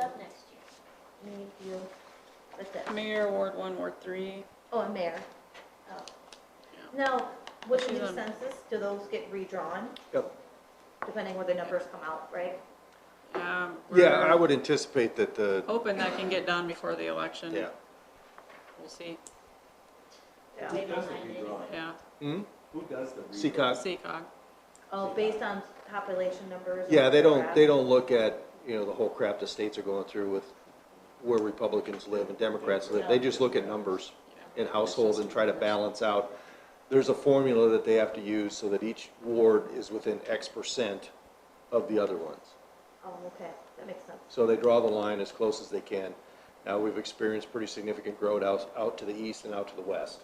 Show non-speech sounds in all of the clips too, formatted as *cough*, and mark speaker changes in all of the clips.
Speaker 1: up next year. Me, you, with this.
Speaker 2: Mayor, Ward One, Ward Three.
Speaker 1: Oh, and mayor. Oh. Now, with the
Speaker 2: She's
Speaker 1: new
Speaker 2: on-
Speaker 1: census, do those get redrawn,
Speaker 3: Yep.
Speaker 1: depending where the numbers come out, right?
Speaker 2: Um,
Speaker 3: Yeah,
Speaker 2: we're
Speaker 3: I would anticipate that the,
Speaker 2: Hoping that can get done before the election.
Speaker 3: yeah.
Speaker 2: We'll see,
Speaker 1: Yeah.
Speaker 4: Who does the redraw?
Speaker 2: yeah.
Speaker 3: Hmm?
Speaker 4: Who does the redraw?
Speaker 3: Seacog?
Speaker 2: CCOG.
Speaker 1: Oh, based on population numbers? and
Speaker 3: Yeah, they don't, they
Speaker 1: demographics?
Speaker 3: don't look at, you know, the whole crap the states are going through with where Republicans live and Democrats live. They just look at numbers in households and try to balance out. There's a formula that they have to use so that each ward is within X percent of the other ones.
Speaker 1: Oh, okay, that makes sense.
Speaker 3: So they draw the line as close as they can. Now, we've experienced pretty significant growth out, out to the east and out to the west.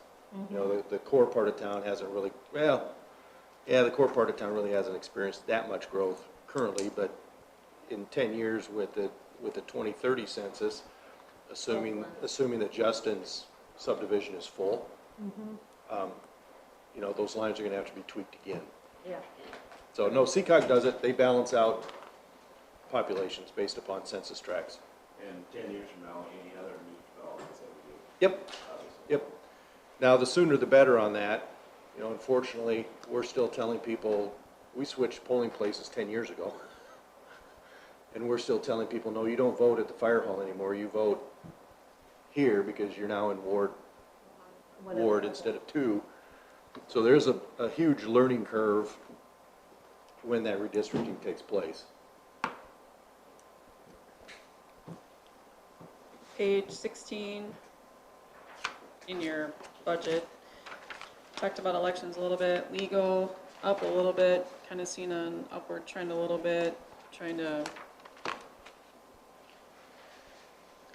Speaker 3: You know, the, the core part of town hasn't really, well, yeah, the core part of town really hasn't experienced that much growth currently, but in ten years with the, with the twenty thirty census, assuming, assuming that Justin's subdivision is full, um, you know, those lines are gonna have to be tweaked again.
Speaker 1: Yeah,
Speaker 3: So, no, Seacog does it, they balance out populations based upon census tracts.
Speaker 4: And ten years from now, any other new developments that we do,
Speaker 3: Yep,
Speaker 4: obviously.
Speaker 3: yep. Now, the sooner the better on that. You know, unfortunately, we're still telling people, we switched polling places ten years ago. *laughs* And we're still telling people, no, you don't vote at the fire hall anymore, you vote here because you're now in Ward,
Speaker 1: whatever.
Speaker 3: Ward instead of two. So there's a, a huge learning curve when that redistricting takes place.
Speaker 2: Page sixteen in your budget. Talked about elections a little bit, legal up a little bit, kind of seen an upward trend a little bit, trying to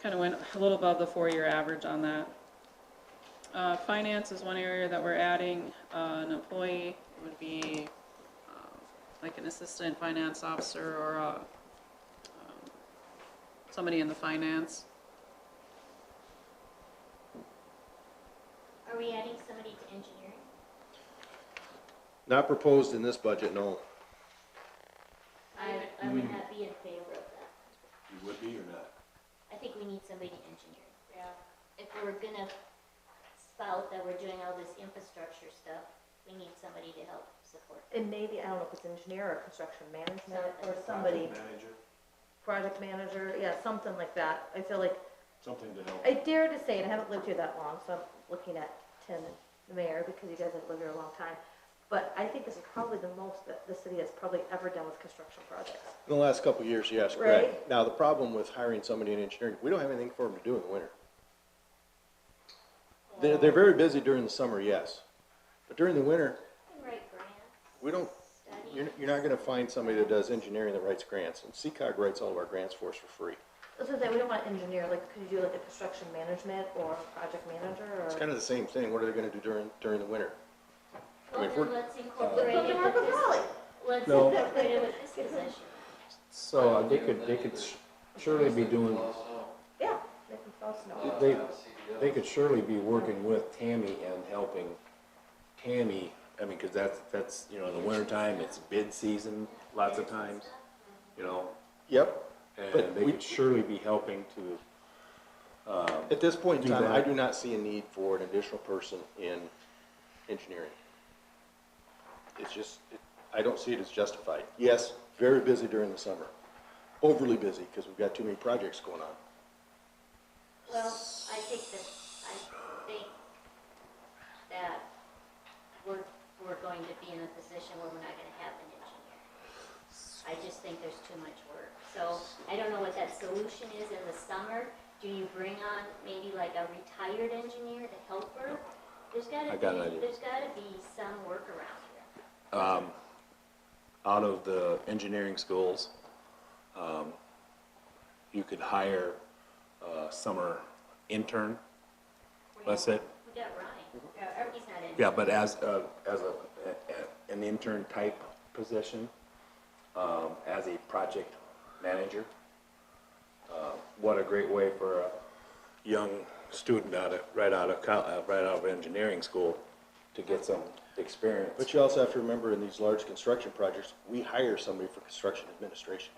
Speaker 2: kind of went a little above the four-year average on that. Uh, finance is one area that we're adding, uh, an employee would be, um, like an assistant finance officer or a, um, somebody in the finance.
Speaker 5: Are we adding somebody to engineering?
Speaker 3: Not proposed in this budget, no.
Speaker 5: I, I would not be in favor of that.
Speaker 4: You would be or not?
Speaker 5: I think we need somebody to engineer. Yeah. If we're gonna spout that we're doing all this infrastructure stuff, we need somebody to help support.
Speaker 1: And maybe, I don't know if it's engineer or construction management or
Speaker 5: Project
Speaker 1: somebody,
Speaker 4: Project manager,
Speaker 1: project manager, yeah, something like that. I feel like,
Speaker 4: something to help.
Speaker 1: I dare to say, and I haven't lived here that long, so I'm looking at Tim and the mayor because you guys have lived here a long time. But I think this is probably the most that the city has probably ever done with construction projects.
Speaker 3: In the last couple of years, yes, correct.
Speaker 1: Right.
Speaker 3: Now, the problem with hiring somebody in engineering, we don't have anything for them to do in the winter. They're, they're very busy during the summer, yes, but during the winter,
Speaker 5: We can Write grants,
Speaker 3: we don't,
Speaker 5: study.
Speaker 3: you're, you're not gonna find somebody that does engineering that writes grants, and CCOG writes all of our grants for us for free.
Speaker 1: This is that we don't want to engineer, like, could you do like a construction management or project manager or?
Speaker 3: It's kind of the same thing, what are they gonna do during, during the winter? I
Speaker 5: Well,
Speaker 3: mean, if
Speaker 5: then
Speaker 3: we're-
Speaker 5: let's incorporate it with
Speaker 1: Napa Valley.
Speaker 5: this, let's
Speaker 6: No.
Speaker 5: incorporate it with this position.
Speaker 6: So uh, they could, they could surely be doing,
Speaker 1: Yeah, they can fall snow.
Speaker 6: they, they could surely be working with Tammy and helping Tammy, I mean, cause that's, that's, you know, in the wintertime, it's bid season lots of times, you know?
Speaker 3: Yep, But
Speaker 6: And they
Speaker 3: we-
Speaker 6: could surely be helping to,
Speaker 3: at this point in
Speaker 6: Do
Speaker 3: time, I
Speaker 6: that.
Speaker 3: do not see a need for an additional person in engineering. It's just, it- I don't see it as justified. Yes, very busy during the summer, overly busy, because we've got too many projects going on.
Speaker 5: Well, I think that, I think that we're, we're going to be in a position where we're not gonna have an engineer. I just think there's too much work. So I don't know what that solution is in the summer. Do you bring on maybe like a retired engineer to help her? There's gotta
Speaker 6: I got an
Speaker 5: be,
Speaker 6: idea.
Speaker 5: there's gotta be some workaround here.
Speaker 6: out of the engineering schools, um, you could hire a summer intern, That's it.
Speaker 5: We got Ryan. Yeah, He's not in.
Speaker 6: Yeah, but as a, as a, a- an intern type position, um, as a project manager. Uh, What a great way for a young student out of, right out of, col- uh, right out of engineering school to get some experience.
Speaker 3: But you also have to remember in these large construction projects, we hire somebody for construction administration.